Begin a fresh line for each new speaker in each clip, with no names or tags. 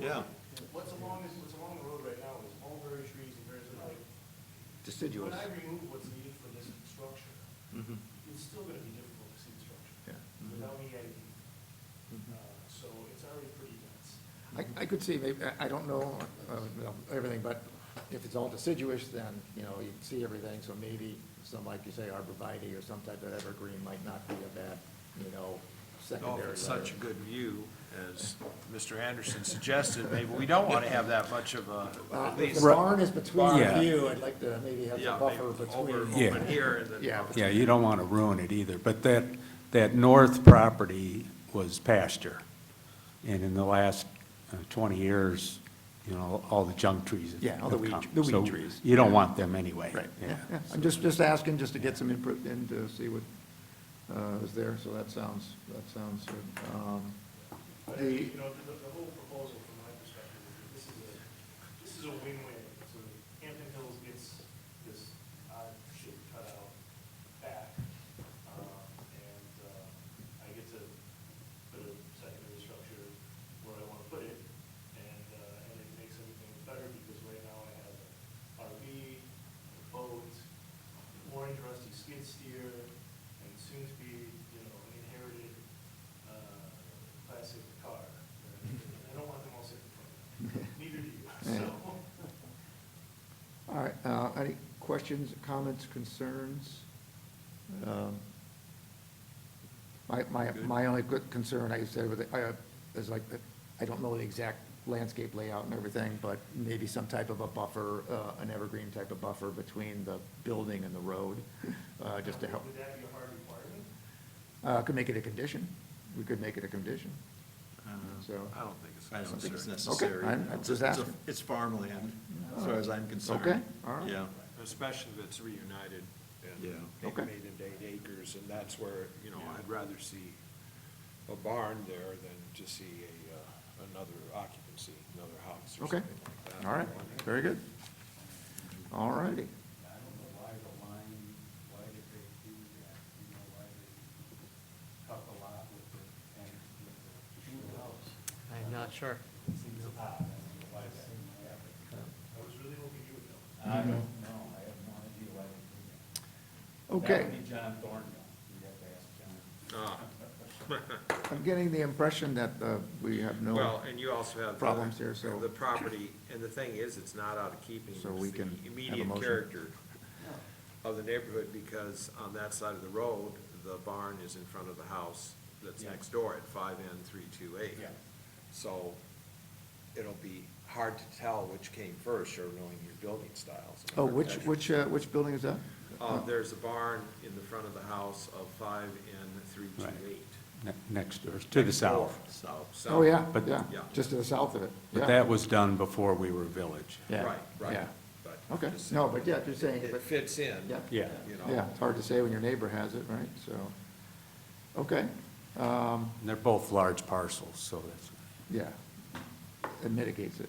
Yeah.
What's along, is- what's along the road right now is mulberry trees and various other.
deciduous.
When I remove what's needed for this structure,
Mm-hmm.
Mhm.
it's still gonna be difficult to see the structure.
Yeah. Mm-hmm.
Mhm.
Without any ID.
Mhm.
Uh, So it's already pretty dense.
I, I could see, maybe, I- I don't know, uh, you know, everything, but if it's all deciduous, then, you know, you can see everything, so maybe some, like you say, arborvitae or some type of evergreen might not be a bad, you know,
Oh, if
secondary.
it's such a
layer.
good view, as Mr. Anderson suggested, maybe we don't want to have that much of a,
Uh,
at
If
least.
the barn is between
Yeah.
you, I'd like to maybe have
Yeah,
a
maybe
buffer
over,
between.
Yeah.
over here and then.
Yeah.
Yeah, you don't want to ruin it either, but that, that north property was pasture. And in the last uh, 20 years, you know, all the junk trees have
Yeah, all the
have
weed-
come.
the weed
So
trees.
You don't want them anyway.
Right, yeah,
Yeah.
yeah. I'm just, just asking, just to get some input and to see what uh, is there, so that sounds, that sounds good. Um,
But,
The-
you know, the, the whole proposal from my perspective, is that this is a, this is a win-win. So Hampton Hills gets this odd shit cut out back, um, and, uh, I get to put a secondary structure where I wanna put it, and, uh, and it makes everything better, because right now I have a RV, a boat, orange rusty skid steer, and soon to be, you know, inherited, uh, classic car. I don't want them all sitting in front of me, neither do you, so.
All right, uh, any questions, comments, concerns? Um, My, my, my only good concern, like I said, with, it, I, uh, is like, that I don't know the exact landscape layout and everything, but maybe some type of a buffer, uh, an evergreen type of buffer between the building and the road, uh, just to help.
Would that be a hard requirement?
Uh, could make it a condition, we could make it a condition.
I don't
So-
know. I don't think it's
Uh, I don't think it's
necessary.
necessary.
I'm- I'm
It's-
just
it's a-
asking.
It's farmland, as far as I'm concerned.
Okay, all right.
Yeah,
Especially if it's reunited
Yeah.
and maybe
Okay.
made into eight acres, and that's where, you know, I'd rather see a barn there than to see a, uh, another occupancy, another house or
Okay,
something like that.
all right, very good. All righty.
I don't know why the line, why did they do that, you know, why they cut the lot with the, and with the new house.
I'm not sure.
It seems odd, I don't know why that happened.
I was really hoping you would know.
I don't know, I have no idea why they did that.
Okay.
That would be John Thornhill, you'd have to ask John.
I'm getting the impression that, uh, we have no.
Well, and you also have. the-
problems here, so-
The property, and the thing is, it's not out of keeping
So we
with
can have
the
a
immediate
motion.
character of the neighborhood, because on that side of the road, the barn is in front of the house that's
Yeah.
next door at five N three two eight.
Yeah.
So it'll be hard to tell which came first, or knowing your building styles. and
Oh, which,
architecture.
which, uh, which building is that?
Uh, there's a barn in the front of the house of five N three two eight.
Ne- Next door, to the south.
South, south.
Oh, yeah,
But-
yeah,
yeah.
just to the south of it.
But
yeah.
that was done before we were a village.
Yeah,
Right, right.
yeah.
But
Okay,
just-
no, but yeah, just saying,
It
but,
fits in.
yeah.
Yeah.
You know.
Yeah, it's hard to say when your neighbor has it, right, so, okay, um,
And they're both large parcels, so that's,
yeah, it mitigates it.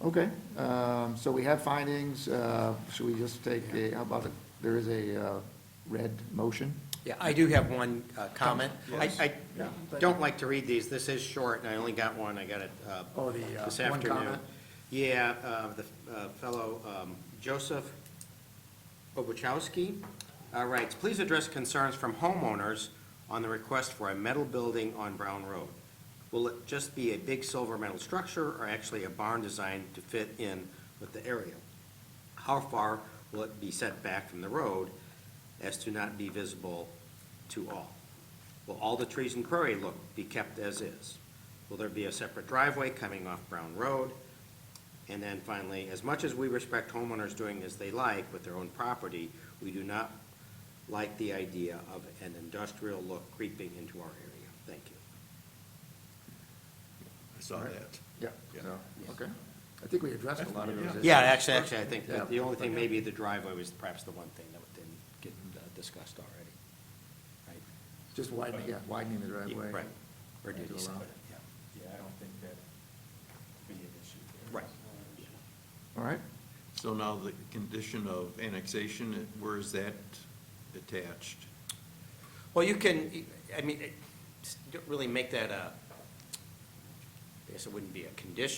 Okay, um, so we have findings, uh, should we just take a, how about, a- there is a, uh, red motion?
Yeah, I do have one uh, comment. I, I
Yeah.
don't like to read these, this is short, and I only got one, I got it uh,
Oh, the, uh,
this
one
afternoon.
comment?
Yeah, uh, the uh, fellow um, Joseph Obuchowski uh, writes, "Please address concerns from homeowners on the request for a metal building on Brown Road. Will it just be a big silver metal structure or actually a barn designed to fit in with the area? How far will it be set back from the road as to not be visible to all? Will all the trees and prairie look be kept as is? Will there be a separate driveway coming off Brown Road? And then finally, as much as we respect homeowners doing as they like with their own property, we do not like the idea of an industrial look creeping into our area. Thank you.
I saw that.
Yeah, so, okay, I think we addressed a lot of those issues.
Yeah, actually, actually, I think
Yeah.
that the only thing, maybe the driveway was perhaps the one thing that didn't get uh, discussed already. Right?
Just widening, yeah, widening the
Yeah,
driveway.
Right. Or did
To
he say
allow-
it? Yeah.
Yeah, I don't think that'd be an issue there.
Right.
All right,
So now the condition of annexation, it- where is that attached?
Well, you can, I mean, it- don't really make that a, I guess it wouldn't be a condition